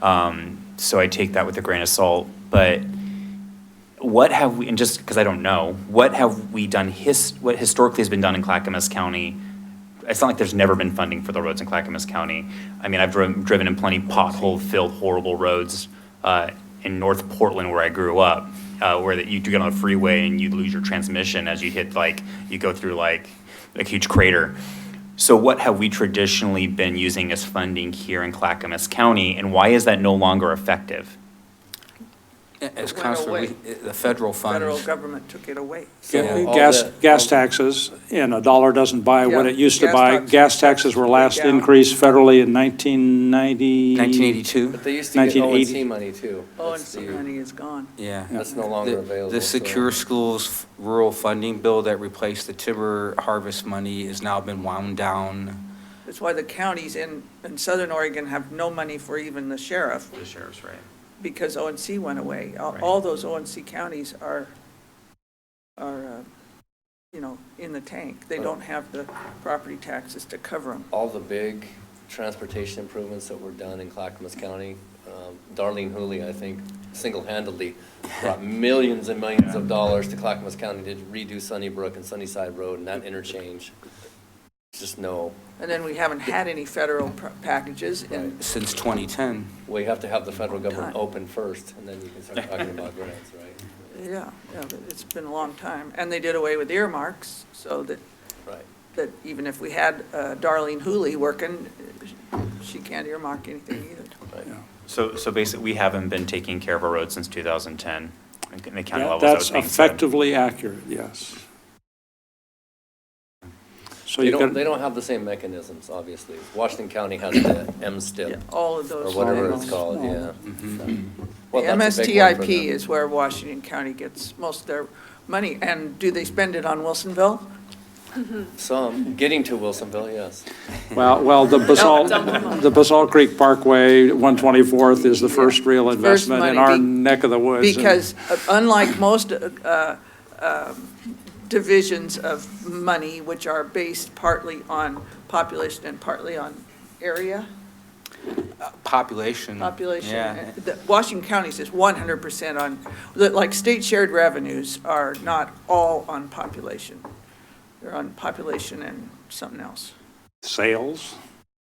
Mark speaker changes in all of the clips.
Speaker 1: Um, so I take that with a grain of salt. But what have we, and just because I don't know, what have we done, his, what historically has been done in Clackamas County? It's not like there's never been funding for the roads in Clackamas County. I mean, I've driven, driven in plenty pothole-filled, horrible roads uh, in North Portland where I grew up, uh, where that you do get on a freeway and you lose your transmission as you hit like, you go through like a huge crater. So what have we traditionally been using as funding here in Clackamas County, and why is that no longer effective?
Speaker 2: As
Speaker 3: It went
Speaker 2: Counselor,
Speaker 3: away.
Speaker 2: Lee- uh, the federal
Speaker 3: Federal
Speaker 2: funds,
Speaker 3: government took it away.
Speaker 2: Yeah.
Speaker 3: So-
Speaker 4: Gas,
Speaker 3: all the-
Speaker 4: gas taxes, and a dollar doesn't buy what
Speaker 3: Yeah,
Speaker 4: it used to
Speaker 3: gas
Speaker 4: buy.
Speaker 3: taxes-
Speaker 4: Gas taxes were last
Speaker 3: Yeah.
Speaker 4: increased federally in 1990.
Speaker 2: 1982?
Speaker 5: But they used to get
Speaker 4: 1980.
Speaker 5: ONC money too.
Speaker 3: Oh, and
Speaker 5: That's
Speaker 3: some
Speaker 5: the-
Speaker 3: money is gone.
Speaker 2: Yeah.
Speaker 5: That's no
Speaker 2: The-
Speaker 5: longer available.
Speaker 2: The
Speaker 5: so-
Speaker 2: Secure Schools Rural Funding Bill that replaced the timber harvest money has now been wound down.
Speaker 3: That's why the counties in, in southern Oregon have no money for even the sheriff,
Speaker 1: The sheriff's right.
Speaker 3: because ONC went away. All,
Speaker 1: Right.
Speaker 3: all those ONC counties are, are, uh, you know, in the tank. They don't have the property taxes to cover them.
Speaker 5: All the big transportation improvements that were done in Clackamas County, um, Darlene Hooley, I think, single-handedly brought millions and millions of dollars to Clackamas County to redo Sunnybrook and Sunnyside Road and that interchange. Just no,
Speaker 3: And then we haven't had any federal pr- packages, and
Speaker 2: Since 2010,
Speaker 5: we have to have the federal government
Speaker 3: Time.
Speaker 5: open first and then you can start talking about grants, right?
Speaker 3: Yeah, yeah, it's been a long time. And they did away with earmarks, so that,
Speaker 5: Right.
Speaker 3: that even if we had uh, Darlene Hooley working, she can't earmark anything either.
Speaker 1: So, so basically, we haven't been taking care of our roads since 2010, in the county
Speaker 4: Yeah,
Speaker 1: level, that was
Speaker 4: That's
Speaker 1: being said.
Speaker 4: effectively accurate, yes. So
Speaker 5: They
Speaker 4: you
Speaker 5: don't, they
Speaker 4: got,
Speaker 5: don't have the same mechanisms, obviously. Washington County has the
Speaker 3: Yeah,
Speaker 5: MSTIP
Speaker 3: All of
Speaker 5: or
Speaker 3: those.
Speaker 5: whatever
Speaker 3: programs.
Speaker 5: it's called, yeah.
Speaker 3: Mm-hmm. The
Speaker 5: Well, that's a big one for
Speaker 3: MSTIP
Speaker 5: them.
Speaker 3: is where Washington County gets most of their money. And do they spend it on Wilsonville?
Speaker 5: Some, getting to Wilsonville, yes.
Speaker 4: well, well, the basalt, the Basalt Creek Parkway, 124th is the first real investment in
Speaker 3: money
Speaker 4: our
Speaker 3: be-
Speaker 4: neck of the woods. and-
Speaker 3: Because unlike most uh, um, divisions of money, which are based partly on population and partly on area,
Speaker 2: population.
Speaker 3: population.
Speaker 2: Mm. Yeah.
Speaker 3: And the- Washington County's is one hundred percent on, like, state shared revenues are not all on population. They're on population and something else.
Speaker 4: Sales?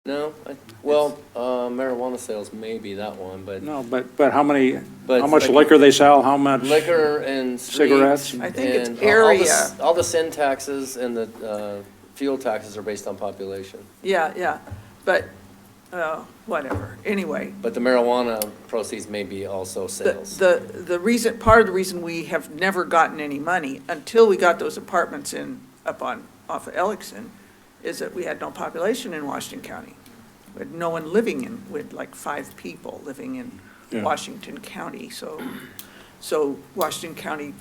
Speaker 5: No, I- well, uh, marijuana sales may be that one, but
Speaker 4: No, but, but how many,
Speaker 5: But
Speaker 4: how much
Speaker 5: like-
Speaker 4: liquor they sell, how much?
Speaker 5: liquor and street.
Speaker 4: Cigarettes?
Speaker 3: I think it's
Speaker 5: and all the s-
Speaker 3: area.
Speaker 5: All the sin taxes and the uh, fuel taxes are based on population.
Speaker 3: Yeah, yeah, but, uh, whatever, anyway.
Speaker 5: But the marijuana proceeds may be also
Speaker 3: The,
Speaker 5: sales.
Speaker 3: the, the reason, part of the reason we have never gotten any money until we got those apartments in, up on, off of Elixon, is that we had no population in Washington County. We had no one living in, we had like five people living in
Speaker 4: Yeah.
Speaker 3: Washington County, so, so Washington County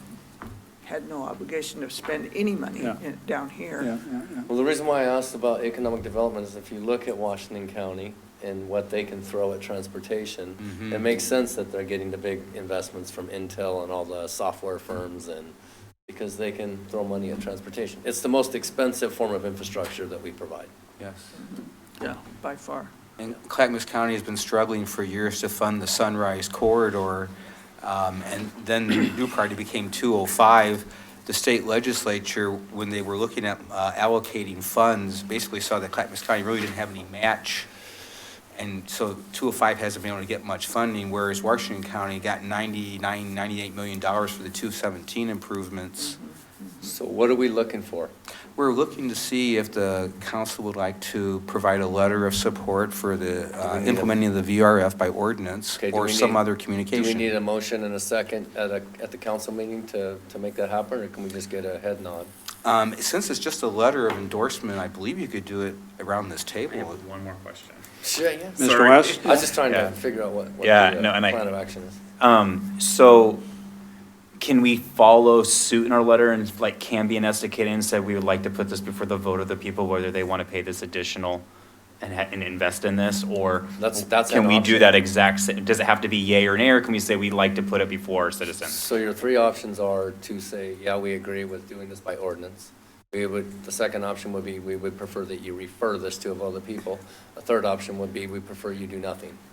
Speaker 3: had no obligation to spend any money
Speaker 4: Yeah.
Speaker 3: in- down here.
Speaker 4: Yeah, yeah, yeah.
Speaker 5: Well, the reason why I asked about economic development is if you look at Washington County and what they can throw at
Speaker 1: Mm-hmm.
Speaker 5: transportation, it makes sense that they're getting the big investments from Intel and all the software firms and, because they can throw money at transportation. It's the most expensive form of infrastructure that we provide.
Speaker 2: Yes.
Speaker 3: Yeah, by far.
Speaker 2: And Clackamas County has been struggling for years to fund the Sunrise Corridor, um, and then the new priority became 205. The state legislature, when they were looking at uh, allocating funds, basically saw that Clackamas County really didn't have any match, and so 205 hasn't been able to get much funding, whereas Washington County got 99, 98 million dollars for the 217 improvements.
Speaker 5: So what are we looking for?
Speaker 2: We're looking to see if the council would like to provide a letter of support for the
Speaker 5: Do we
Speaker 2: uh,
Speaker 5: need a-
Speaker 2: implementing of the VRF by ordinance
Speaker 5: Okay, do
Speaker 2: or
Speaker 5: we
Speaker 2: some
Speaker 5: need-
Speaker 2: other
Speaker 5: Do we need
Speaker 2: communication.
Speaker 5: a motion and a second at a, at the council meeting to, to make that happen, or can we just get a head nod?
Speaker 2: Um, Since it's just a letter of endorsement, I believe you could do it around this table.
Speaker 1: one more question.
Speaker 5: Sure, yeah.
Speaker 4: Mr.
Speaker 1: Sorry.
Speaker 4: West?
Speaker 5: I was just trying
Speaker 1: Yeah.
Speaker 5: to figure out what, what the
Speaker 1: Yeah, no,
Speaker 5: uh,
Speaker 1: and I-
Speaker 5: plan of action is.
Speaker 1: Um, so can we follow suit in our letter and like Cambian esticated and said we would like to put this before the vote of the people, whether they want to pay this additional and, ha- and invest in this, or?
Speaker 5: That's- that's
Speaker 1: Can
Speaker 5: an
Speaker 1: we do
Speaker 5: option.
Speaker 1: that exact, sa- does it have to be yay or nay, or can we say we'd like to put it before our citizens?
Speaker 5: So your three options are to say, yeah, we agree with doing this by ordinance. We would, the second option would be, we would prefer that you refer this to of other people. A third option would be, we prefer you do nothing.